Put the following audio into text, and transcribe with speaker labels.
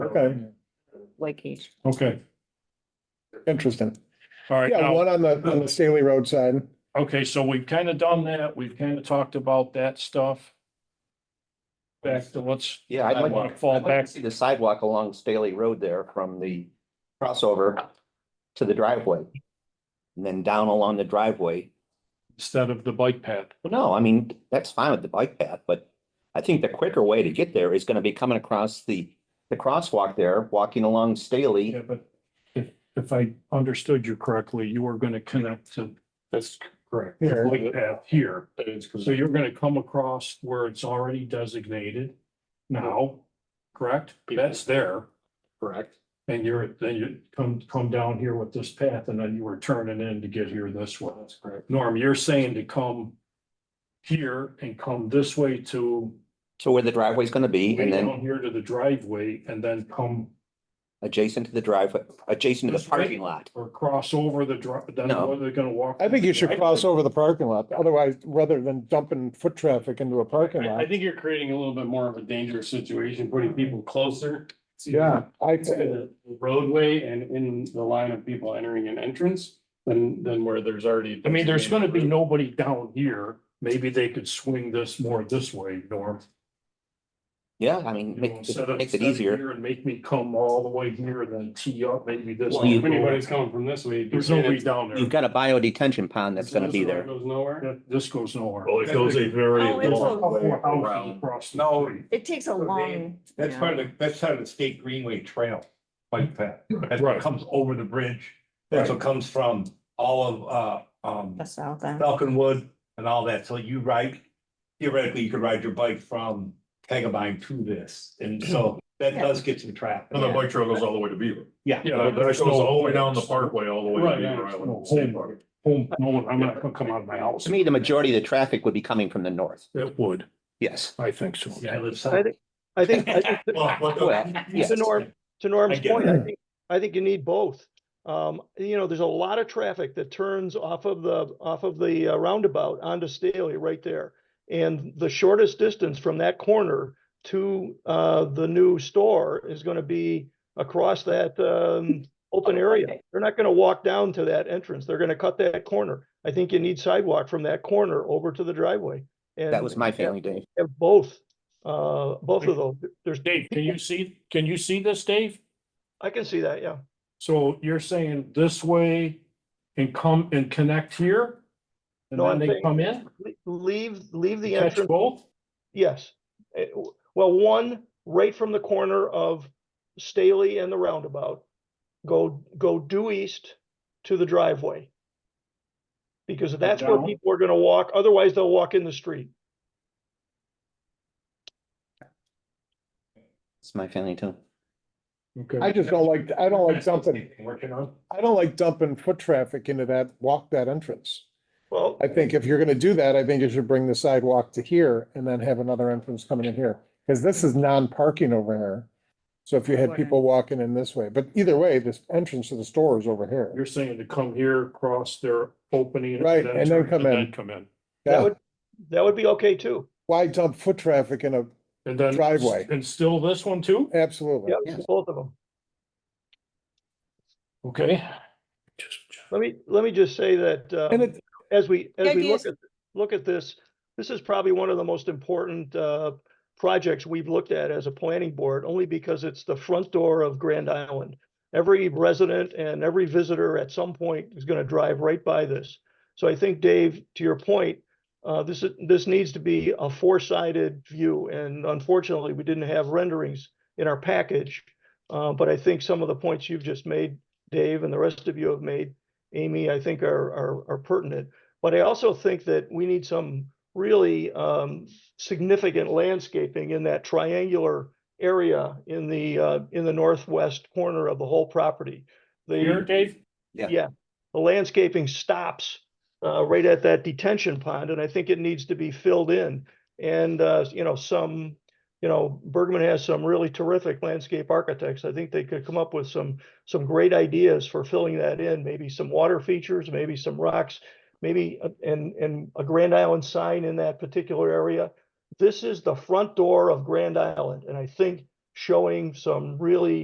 Speaker 1: Okay,
Speaker 2: like each.
Speaker 3: Okay,
Speaker 1: interesting.
Speaker 3: all right.
Speaker 1: Yeah,
Speaker 3: now-
Speaker 1: one on the, on the Staley Road side.
Speaker 3: Okay, so we've kind of done that. We've kind of talked about that stuff. Back to let's,
Speaker 4: Yeah, I'd like,
Speaker 3: Sidewalk,
Speaker 4: I'd
Speaker 3: fall
Speaker 4: like
Speaker 3: back.
Speaker 4: to see the sidewalk along Staley Road there from the crossover to the driveway. And then down along the driveway.
Speaker 3: instead of the bike path.
Speaker 4: Well, no, I mean, that's fine with the bike path, but I think the quicker way to get there is gonna be coming across the, the crosswalk there, walking along Staley.
Speaker 3: Yeah, but if, if I understood you correctly, you were gonna connect to
Speaker 5: That's correct.
Speaker 3: the bike path here.
Speaker 5: But it's 'cause-
Speaker 3: So you're gonna come across where it's already designated now, correct? That's there.
Speaker 5: correct.
Speaker 3: And you're, then you come, come down here with this path and then you were turning in to get here this way.
Speaker 5: That's correct.
Speaker 3: Norm, you're saying to come here and come this way to
Speaker 4: To where the driveway's gonna be
Speaker 3: way
Speaker 4: and then
Speaker 3: down here to the driveway and then come
Speaker 4: adjacent to the driveway, adjacent to the
Speaker 3: This way?
Speaker 4: parking lot.
Speaker 3: or cross over the drive, then
Speaker 4: No.
Speaker 3: what are they gonna walk?
Speaker 1: I think you should cross over the parking lot, otherwise, rather than dumping foot traffic into a parking
Speaker 5: I, I
Speaker 1: lot.
Speaker 5: think you're creating a little bit more of a dangerous situation, putting people closer. to-
Speaker 1: Yeah, I,
Speaker 5: To the roadway and in the line of people entering an entrance than, than where there's already.
Speaker 3: I mean, there's gonna be nobody down here. Maybe they could swing this more this way, Norm.
Speaker 4: Yeah, I
Speaker 3: You
Speaker 4: mean,
Speaker 3: know,
Speaker 4: makes
Speaker 3: instead of-
Speaker 4: makes it
Speaker 3: instead of
Speaker 4: easier.
Speaker 3: here And make me come all the way here and then tee up maybe this.
Speaker 5: Well,
Speaker 3: way.
Speaker 5: if anybody's coming from this way.
Speaker 3: There's nobody down there.
Speaker 4: You've got a bio detention pond that's gonna
Speaker 5: This
Speaker 4: be
Speaker 5: road
Speaker 4: there.
Speaker 5: Goes nowhere.
Speaker 3: That- This goes nowhere.
Speaker 6: Well, it goes a very
Speaker 2: Oh, it's a-
Speaker 6: long way
Speaker 3: Houses
Speaker 6: around.
Speaker 3: across the
Speaker 6: No.
Speaker 3: street.
Speaker 2: It takes a
Speaker 6: Okay,
Speaker 2: long.
Speaker 6: That's
Speaker 2: yeah.
Speaker 6: part of the, that's part of the state greenway trail, bike path. That's
Speaker 3: Right.
Speaker 6: what comes over the bridge. That's what comes from all of, uh, um,
Speaker 2: The south end.
Speaker 6: Falconwood and all that. So you ride, theoretically, you could ride your bike from Tagabine to this. And so that
Speaker 2: Yeah.
Speaker 6: does get some traffic.
Speaker 2: And the bike
Speaker 6: trail goes all the way to Beaver. Yeah.
Speaker 3: Yeah, but there's no-
Speaker 6: parkway all the
Speaker 3: Right, yeah, no, home, home, no, I'm not gonna come out of my house.
Speaker 4: To me, the majority of the traffic would be coming from the north.
Speaker 3: It would,
Speaker 4: Yes.
Speaker 3: I think so.
Speaker 6: Yeah, I live
Speaker 7: I
Speaker 6: south.
Speaker 7: think, I think, I think to-
Speaker 6: Well, what the-
Speaker 4: Well, yes.
Speaker 7: to Norm, to Norm's
Speaker 6: get it.
Speaker 7: point, I think, I think you need both. Um, you know, there's a lot of traffic that turns off of the, off of the uh, roundabout onto Staley right there. And the shortest distance from that corner to, uh, the new store is gonna be across that, um, open area. They're not gonna walk down to that entrance. They're gonna cut that corner. I think you need sidewalk from that corner over to the driveway.
Speaker 4: That was my feeling, Dave.
Speaker 7: Have both, uh, both of those. There's
Speaker 3: Dave, can you see, can you see this, Dave?
Speaker 7: I can see that, yeah.
Speaker 3: So you're saying this way and come and connect here? And
Speaker 7: No,
Speaker 3: then
Speaker 7: I'm
Speaker 3: they
Speaker 7: saying-
Speaker 3: come in,
Speaker 7: Le- Leave, leave the
Speaker 3: catch
Speaker 7: entrance,
Speaker 3: both?
Speaker 7: yes. Eh, w- Well, one, right from the corner of Staley and the roundabout. Go, go due east to the driveway. Because that's where
Speaker 3: down?
Speaker 7: people are gonna walk, otherwise they'll walk in the street.
Speaker 4: It's my feeling too.
Speaker 1: I just don't like, I don't like dumping,
Speaker 6: Working on.
Speaker 1: I don't like dumping foot traffic into that, walk that entrance.
Speaker 7: Well,
Speaker 1: I think if you're gonna do that, I think you should bring the sidewalk to here and then have another entrance coming in here. Cause this is non-parking over here. So if you had people walking in this way, but either way, this entrance to the store is over here.
Speaker 3: You're saying to come here, cross their opening.
Speaker 1: Right, and then
Speaker 3: turn,
Speaker 1: come in.
Speaker 3: Come in,
Speaker 7: that
Speaker 1: Yeah,
Speaker 7: would, that would be okay too.
Speaker 1: why dump foot traffic in a,
Speaker 3: and then.
Speaker 1: Driveway.
Speaker 3: And still this one too?
Speaker 1: absolutely.
Speaker 7: Yeah, both of them.
Speaker 3: Okay.
Speaker 7: Let me, let me just say that, uh.
Speaker 1: And it,
Speaker 7: as we, as we
Speaker 2: idea
Speaker 7: look
Speaker 2: is-
Speaker 7: at, look at this, this is probably one of the most important uh, projects we've looked at as a planning board, only because it's the front door of Grand Island. Every resident and every visitor at some point is going to drive right by this. So I think, Dave, to your point, uh, this is, this needs to be a four-sided view, and unfortunately, we didn't have renderings in our package. Uh, But I think some of the points you've just made, Dave, and the rest of you have made, Amy, I think are, are, are pertinent. But I also think that we need some really um, significant landscaping in that triangular area in the, uh, in the northwest corner of the whole property.
Speaker 3: Here,
Speaker 7: The,
Speaker 3: Dave?
Speaker 7: the landscaping stops uh, right at that detention pond, and I think it needs to be filled in. And, uh, you know, some, you know, Bergman has some really terrific landscape architects. I think they could come up with some, some great ideas for filling that in, maybe some water features, maybe some rocks, maybe, a- and, and a Grand Island sign in that particular area. This is the front door of Grand Island, and I think showing some really